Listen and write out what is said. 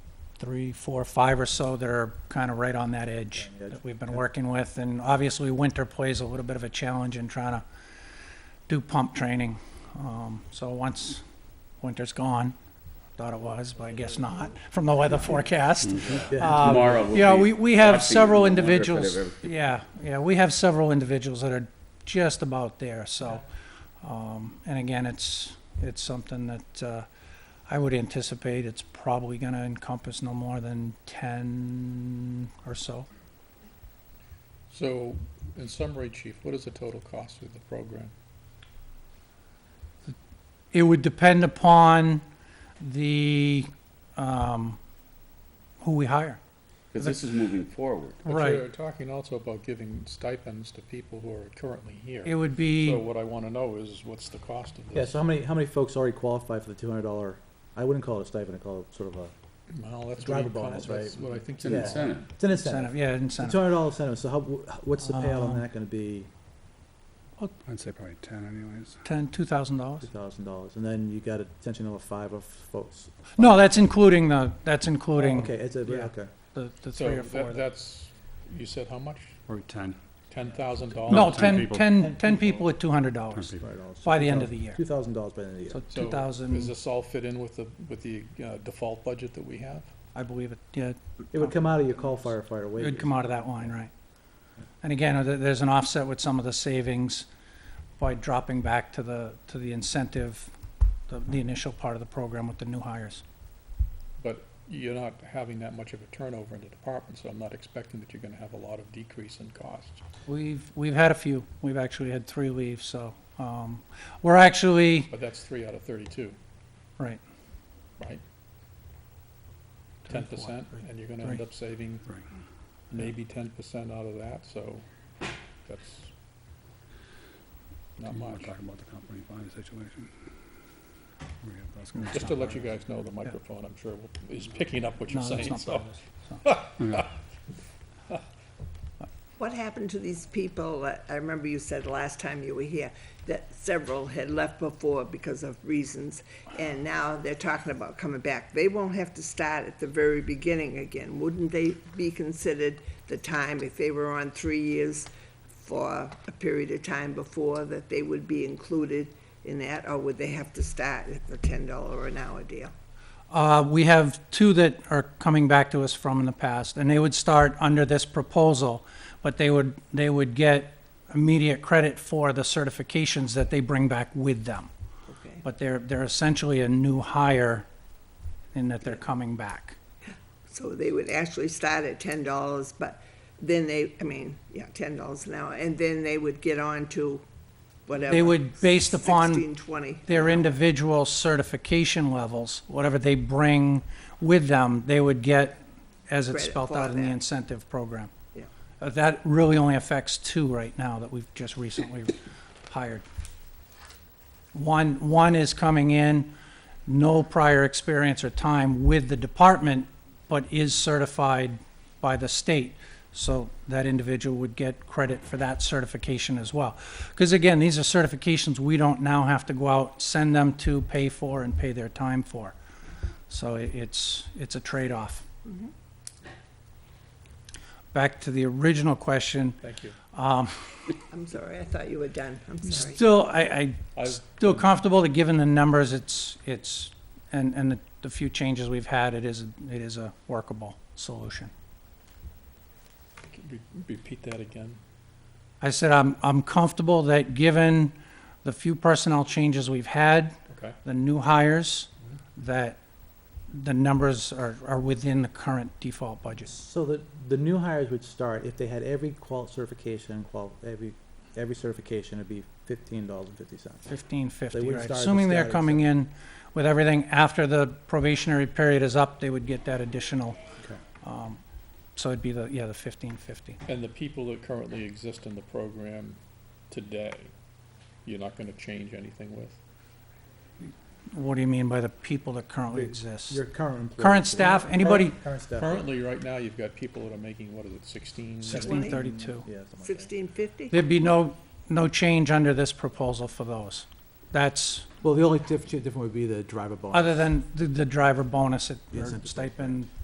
three, four, five or so that are kind of right on that edge that we've been working with. And obviously, winter plays a little bit of a challenge in trying to do pump training. Um, So once winter's gone, thought it was, but I guess not, from the weather forecast. um, Tomorrow will Yeah, be we, we have watching several and wondering if it individuals, ever- yeah, yeah, we have several individuals that are just about there, so. um, And again, it's, it's something that uh, I would anticipate it's probably going to encompass no more than 10 or so. So, in summary, Chief, what is the total cost of the program? It would depend upon the, um, who we hire. Because this is moving forward. But Right. you're talking also about giving stipends to people who are currently It here. would be. So what I want to know is, what's the cost of Yeah, this? so how many, how many folks already qualify for the two hundred dollar, I wouldn't call it a stipend, I call it sort of a, Well, that's what Driver you call, bonus, that's right? what I think. It's an Yeah. incentive. it's an Incentive, Uh-huh. incentive. yeah, Two incentive. hundred dollar incentive, so how, wh- what's the payout on that gonna be, I'd say probably ten anyways. Ten, two thousand dollars? two thousand dollars, and then you got a potentially another five of folks. No, that's including the, that's including Oh, Okay, it's a, yeah. okay, the, the So three or that- four. that- that's, you said how much? Or ten. Ten thousand dollars? No, 10 ten, people. ten, ten people at two hundred dollars people. right, dollars. by the end of the year. Two thousand dollars by the end of the So year. two Does thousand, this all fit in with the, with the uh, default budget that we have? I believe it, yeah, It would come out of your call firefighter uh, it wages. would come out of that line, right? And again, uh, there- there's an offset with some of the savings by dropping back to the, to the incentive, the, the initial part of the program with the new hires. But you're not having that much of a turnover in the department, so I'm not expecting that you're going to have a lot of decrease in costs. We've, we've had a few, we've actually had three leave, so, um, we're actually, But that's three out of thirty-two, right, right? Ten percent, and you're gonna end Three. up saving Right. maybe ten percent out of that, so that's not Do you wanna much. Talk about the company buying situation. We have those guys. Just to let you guys know, the microphone, I'm sure, will- is picking up what no, you're that's saying, not so. part of this. What happened to these people? I- I remember you said last time you were here that several had left before because of reasons, and now they're talking about coming back. They won't have to start at the very beginning again. Wouldn't they be considered the time, if they were on three years for a period of time before, that they would be included in that, or would they have to start at the ten dollar an hour deal? Uh, We have two that are coming back to us from in the past, and they would start under this proposal, but they would, they would get immediate credit for the certifications that they bring back with them. Okay. But they're, they're essentially a new hire in that they're coming back. So they would actually start at ten dollars, but then they, I mean, yeah, ten dollars an hour, and then they would get on to whatever. They would, based upon Sixteen, twenty. their individual certification levels, whatever they bring with them, they would get as it's Credit spelled for out in the that. incentive program. Yeah. Uh, That really only affects two right now that we've just recently hired. One, one is coming in, no prior experience or time with the department, but is certified by the state. So that individual would get credit for that certification as well. Because again, these are certifications we don't now have to go out, send them to, pay for, and pay their time for. So i- it's, it's a trade-off. Mm-hmm. Back to the original question, um, Thank you. I'm sorry, I thought you were done, I'm sorry. still, I, I, I've- still comfortable that given the numbers, it's, it's, and, and the- the few changes we've had, it is, it is a workable solution. Could you re- Repeat that again. I said, I'm, I'm comfortable that given the few personnel changes we've had, Okay. the new hires, that the numbers are, are within the current default budget. So the, the new hires would start, if they had every qual certification, qual, every, every certification, it'd be fifteen dollars and fifty cents. Fifteen They fifty, would right? start at the Assuming they're status coming in with everything after the probationary period is up, they would get that additional. Okay. um, So it'd be the, yeah, the fifteen fifty. And the people that currently exist in the program today, you're not gonna change anything with? What do you mean by the people that currently The- exist? Your current employees. Current staff, anybody, Current- Current staff. Currently, right now, you've got people that are making, what is it, sixteen? sixteen thirty-two. Yeah, something like that. Sixteen fifty? There'd be no, no change under this proposal for those. That's, Well, the only diff- difference would be the driver bonus. other than the, the driver bonus at- Yes, or and- stipend